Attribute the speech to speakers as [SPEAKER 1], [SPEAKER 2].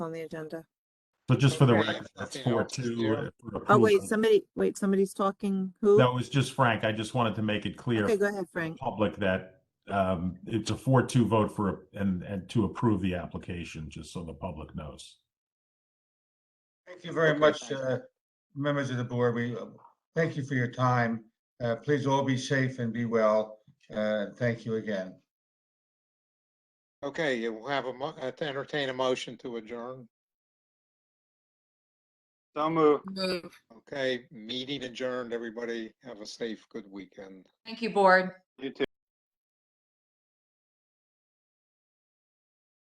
[SPEAKER 1] on the agenda.
[SPEAKER 2] So just for the
[SPEAKER 1] Okay.
[SPEAKER 2] record, that's
[SPEAKER 3] Nothing
[SPEAKER 2] four
[SPEAKER 3] else to do.
[SPEAKER 2] two.
[SPEAKER 1] Oh, wait, somebody, wait, somebody's talking. Who?
[SPEAKER 2] That was just Frank. I just wanted to make it clear
[SPEAKER 1] Okay,
[SPEAKER 2] for
[SPEAKER 1] go ahead,
[SPEAKER 2] the
[SPEAKER 1] Frank.
[SPEAKER 2] public that um, it's a four two vote for, and, and to approve the application, just so the public knows.
[SPEAKER 4] Thank you very
[SPEAKER 3] Okay,
[SPEAKER 4] much,
[SPEAKER 3] thanks.
[SPEAKER 4] uh, members of the board. We uh, thank you for your time. Uh, Please all be safe and be well. Uh, Thank you again.
[SPEAKER 3] Okay, you will have a mo- uh, to entertain a motion to adjourn.
[SPEAKER 5] Don't move.
[SPEAKER 6] Move.
[SPEAKER 3] Okay, meeting adjourned, everybody. Have a safe, good weekend.
[SPEAKER 6] Thank you, board.
[SPEAKER 5] You too.